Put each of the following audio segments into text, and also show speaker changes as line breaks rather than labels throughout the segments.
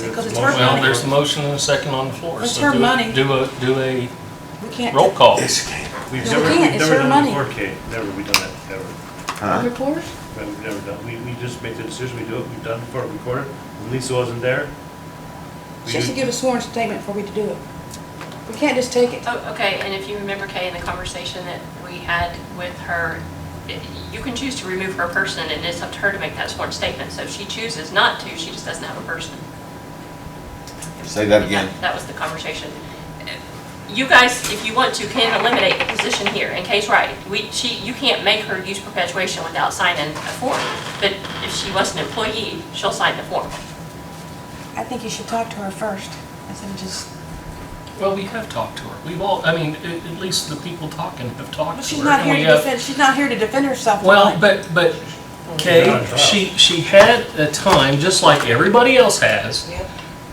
because it's her
Well, there's a
money.
motion and a second on the floor.
It's
so
her
do a-
money.
Do a, do a
We can't.
roll call.
We've
No,
never,
we
we've
can't. It's
never
your
done
money.
it before, Kate, never, we've done that, never.
A
Huh?
Report?
We've never done, we, we just make the decision, we do it, we've done it before, recorded, when Lisa wasn't there. we
She has to
did-
give a sworn statement for we to do it. We can't just take it.
Oh, okay, and if you remember, Kay, in the conversation that we had with her, i- you can choose to remove her person, and it's up to her to make that sworn statement. So if she chooses not to, she just doesn't have a person.
Say that again.
That was the conversation. You guys, if you want to, can eliminate the position here, and Kay's right. We, she, you can't make her use perpetuation without signing a form. But if she was an employee, she'll sign the form.
I think you should talk to her first instead of just,
Well, we have talked to her. We've all, I mean, at, at least the people talking have talked to her.
but she's not
and
here
we
to
have-
defend, she's not here to defend herself.
Well,
tonight.
but, but Kay, she, she had a time, just like everybody else has,
Yep.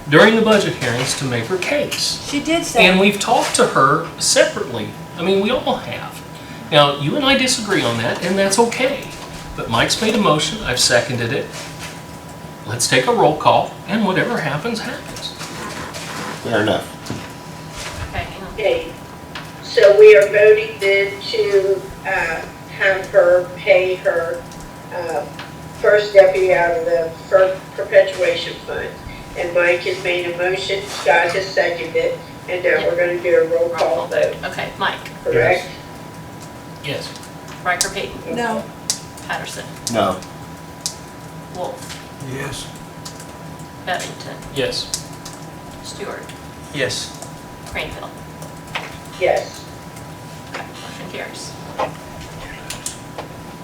during the budget hearings to make her case.
She did say.
And we've talked to her separately. I mean, we all have. Now, you and I disagree on that, and that's okay. But Mike's made a motion, I've seconded it. Let's take a roll call, and whatever happens, happens.
Fair enough.
Okay, hang on.
Okay, so we are voting then to uh, have her pay her uh, first deputy out of the fir- perpetuation fund. And Mike has made a motion, Scott has seconded it, and now we're going to do a roll call vote,
Okay, Mike,
correct?
Yes.
Riker Payton,
No,
Patterson,
No.
Wolf,
Yes.
Bevington,
Yes.
Stewart,
Yes.
Cranfield.
Yes.
Motion carries.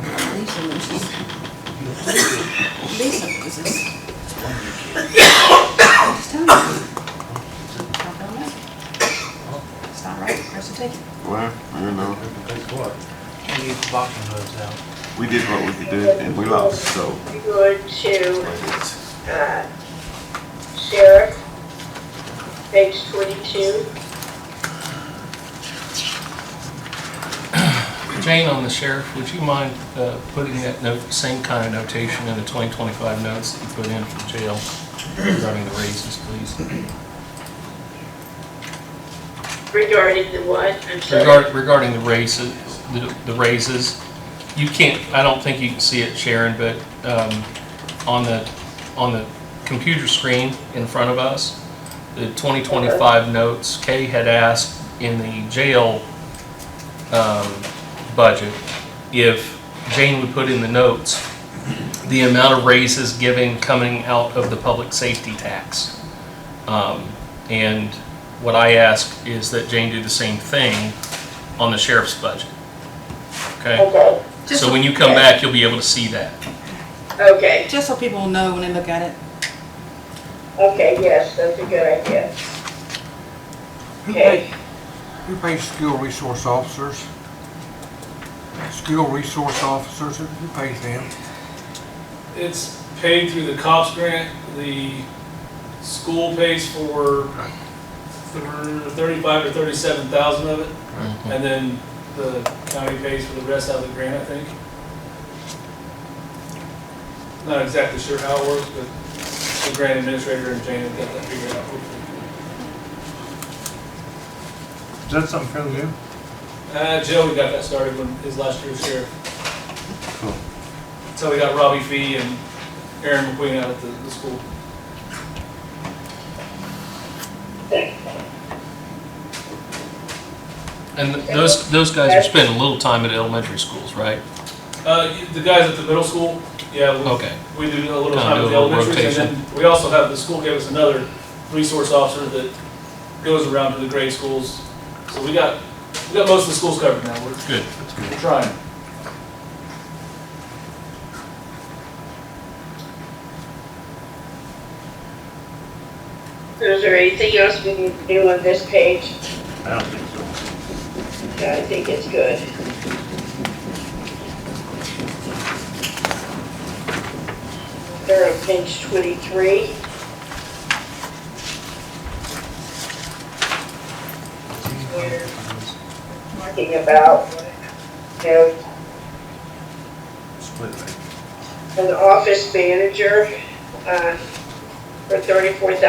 Lisa, Lisa. Lisa, is this? Just tell me. It's not right, where's the ticket?
Well, you know,
Because what?
We need the boxing gloves out.
we did what we could do and we lost, so.
We're going to
it is.
uh, sheriff, page 22.
Jane, on the sheriff, would you mind uh, putting that note, same kind of notation in the 2025 notes that you put in for jail regarding the raises, please?
Regarding the what, I'm sorry.
Regard- Regarding the raises, the the raises, you can't, I don't think you can see it, Sharon, but um, on the, on the computer screen in front of us, the 2025 notes, Kay had asked in the jail um, budget if Jane would put in the notes the amount of raises given coming out of the public safety tax. Um, And what I ask is that Jane do the same thing on the sheriff's budget. Okay?
Okay,
So when you come back, you'll be able to see that.
okay.
Just so people will know when they look at it.
Okay, yes, that's a good idea.
Who
Okay,
pays, who pays school resource officers? School resource officers, who pays them?
It's paid through the cops grant, the school pays for thir- thirty-five or thirty-seven thousand of it, and then the county pays for the rest out of the grant, I think. Not exactly sure how it works, but the grant administrator and Jane have got that figured out.
Is that something fairly new?
Uh, Joe, we got that started when his last year was here.
Cool.
So we got Robbie Fee and Aaron McQueen out at the, the school.
And those, those guys are spending a little time at elementary schools, right?
Uh, you- the guys at the middle school, yeah, we,
Okay.
we do a little
Kinda
time
do
at
a
the
little
elementaries, and
rotation.
then we also have, the school gave us another resource officer that goes around to the grade schools. So we got, we got most of the schools covered now, we're,
Good.
we're trying.
is there anything else we need to do on this page?
I don't think so.
I think it's good. They're on page 23. We're talking about, you know,
Split, right?
an office manager uh, for 34,000